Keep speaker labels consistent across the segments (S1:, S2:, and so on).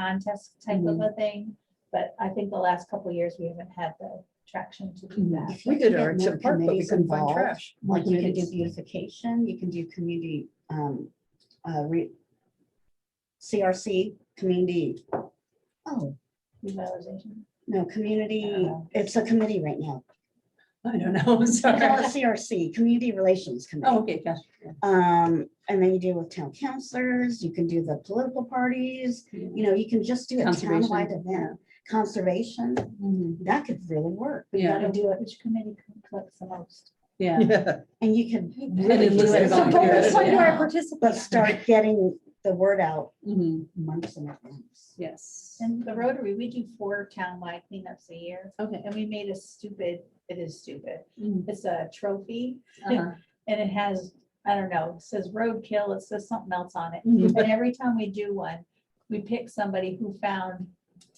S1: contest type of a thing. But I think the last couple of years, we haven't had the traction to do that.
S2: We did
S3: Get
S2: our
S3: more
S2: Park, but we
S3: committees
S2: couldn't find
S3: involved.
S2: trash.
S3: Like you can do
S2: Committees.
S3: beautification, you can do community, um, uh, re. CRC, community, oh,
S1: Revitalization.
S3: no, community,
S2: Uh-huh.
S1: Uh.
S3: it's a committee right now.
S2: I don't know, I'm
S3: We call
S2: sorry.
S3: it CRC, Community Relations
S2: Oh,
S3: Committee.
S2: okay, gosh.
S3: Um, and then you deal with town councilors, you can do the political parties, you know, you can just do a
S2: Conservation, Mm-hmm.
S3: townwide event. Conservation, that could really work.
S1: We
S2: Yeah.
S1: gotta do it, which committee collects the most?
S2: Yeah.
S4: Yeah,
S3: And you can
S2: it
S3: really do
S2: looks
S3: it.
S2: like
S3: So
S2: volunteers,
S3: focus on
S2: yeah.
S3: where it participates, But start getting the word out
S2: Mhm.
S3: months in advance.
S2: Yes.
S1: And the Rotary, we do four townwide cleanups a year.
S2: Okay.
S1: And we made a stupid, it is stupid.
S2: Mhm.
S1: It's a trophy
S2: Uh-huh.
S1: and it has, I don't know, it says roadkill, it says something else on it.
S2: Mhm.
S1: And every time we do one, we pick somebody who found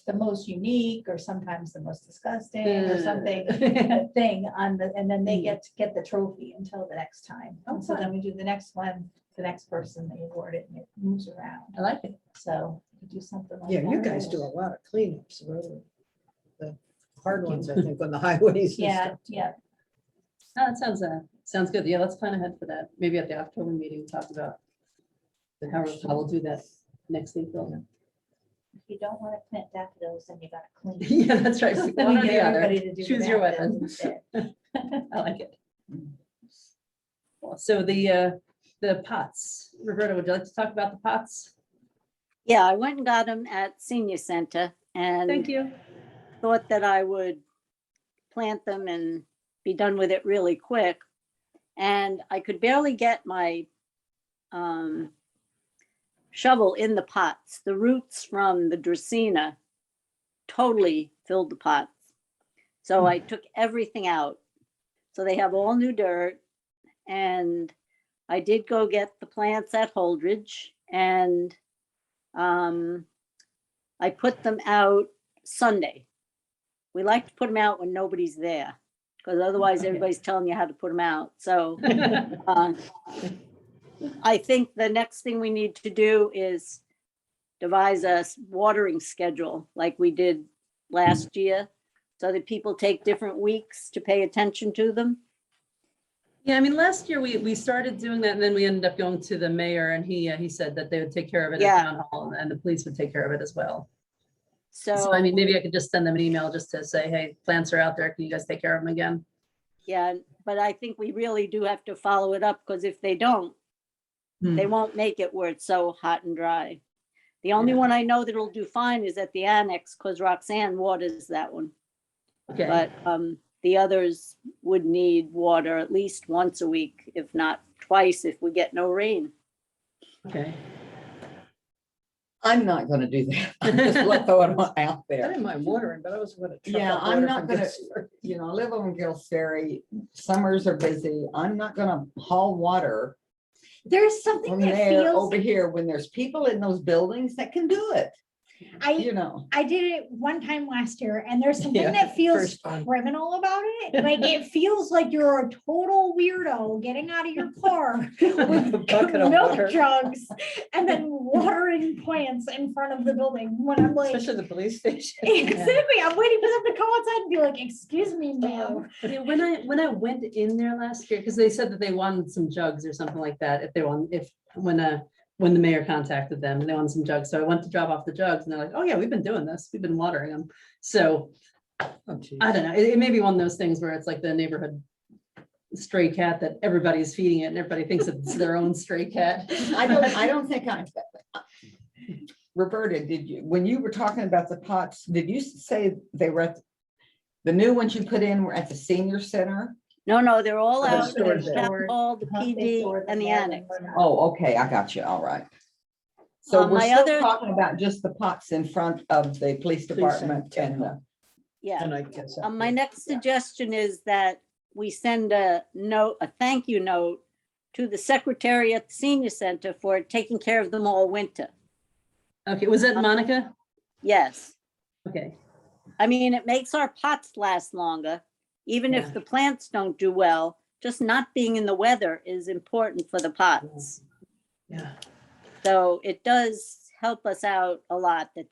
S1: the most unique or sometimes the most disgusting or something.
S2: Uh-huh.
S1: a thing on the, and then they
S2: Mm.
S1: get to get the trophy until the next time.
S2: Oh,
S1: And So
S2: fun.
S1: then we do the next one, the next person, they award it and it moves around.
S2: I like it.
S1: So we do something like.
S4: you
S1: that.
S4: guys do a lot of cleanups, really. The hard ones, I think, on the highways. and
S1: Yeah,
S4: stuff.
S1: yeah.
S2: Oh, That sounds, uh, sounds good. Yeah, let's plan ahead for that. Maybe at the October meeting, talk about how, how we'll do that next April.
S1: If you don't want to plant daffodils, then you gotta clean.
S2: Yeah, that's right. One
S1: Wanna
S2: or
S1: get
S2: the other.
S1: everybody to do the
S2: Choose your
S1: daffodils
S2: weapon.
S1: instead.
S2: I like it. Well, So the, uh, the pots, Roberta, would you like to talk about the pots?
S5: Yeah, I went and got them at senior center
S2: Thank
S5: and
S2: you.
S5: thought that I would plant them and be done with it really quick. And I could barely get my um, shovel in the pots. The roots from the Dracaena totally filled the pots. So I took everything out. So they have all new dirt. And I did go get the plants at Holdridge and um, I put them out Sunday. We like to put them out when nobody's there, because otherwise
S2: Okay.
S5: everybody's telling you how to put them out. So uh, I think the next thing we need to do is devise a s- watering schedule like we did last year. So that people take different weeks to pay attention to them.
S2: Yeah, I mean, last year we, we started doing that and then we ended up going to the mayor and he, uh, he said that they would take care of it at
S5: Yeah.
S2: town hall and the police would take care of it as well. So I
S5: So,
S2: mean, maybe I could just send them an email just to say, hey, plants are out there. Can you guys take care of them again?
S5: yeah, but I think we really do have to follow it up because if they don't,
S2: Hmm.
S5: they won't make it where it's so hot and dry. The only
S2: Yeah.
S5: one I know that'll do fine is at the annex because Roxanne waters that one.
S2: Okay,
S5: But um, the others would need water at least once a week, if not twice, if we get no rain.
S2: okay.
S6: I'm not gonna do that. I'm just let- throwing it out
S4: I
S6: there.
S4: didn't mind watering, but I was gonna.
S6: Yeah, I'm not gonna- You know, I live on Gills Ferry. Summers are busy. I'm not gonna haul water
S7: There's something
S6: from
S7: that
S6: there oh.
S7: feels,
S6: over here when there's people in those buildings that can do it,
S7: I,
S6: you know.
S7: I did it one time last year and there's
S4: Yeah,
S7: something that feels
S4: First time.
S7: criminal about it. Like it feels like you're a total weirdo getting out of your car
S4: With a bucket of water.
S7: milk jugs and then watering plants in front of the building when I'm like,
S4: Especially the police station.
S7: exactly, I'm waiting for them to come outside and be like, excuse me, ma'am.
S2: Yeah, When I, when I went in there last year, because they said that they wanted some jugs or something like that, if they want, if, when, uh, when the mayor contacted them, they wanted some jugs. So I went to drop off the jugs and they're like, oh yeah, we've been doing this. We've been watering them. So
S4: Oh, geez.
S2: I don't know. It, it may be one of those things where it's like the neighborhood stray cat that everybody's feeding it and everybody thinks it's their own stray cat.
S6: I don't, I don't think I. Roberta, did you, when you were talking about the pots, did you say they were at the new ones you put in were at the senior center?
S5: No, no, they're all
S4: They're
S5: out. at
S4: stored
S5: the
S4: there.
S5: town hall, the
S1: Huh, they
S5: PD
S1: sort
S5: and the
S1: them all
S5: annex.
S1: when we're not-
S6: Oh, okay, I got you. All right. So
S5: Um,
S6: we're
S5: my
S6: still
S5: other-
S6: talking about just the pots in front of the police department and the.
S5: Yeah.
S4: And I guess.
S5: Um, my next suggestion is that we send a note, a thank you note to the secretary at the senior center for taking care of them all winter.
S2: Okay, was that Monica?
S5: Yes.
S2: Okay,
S5: I mean, it makes our pots last longer, even
S2: Yeah.
S5: if the plants don't do well. Just not being in the weather is important for the pots.
S2: yeah.
S5: So it does help us out a lot that they.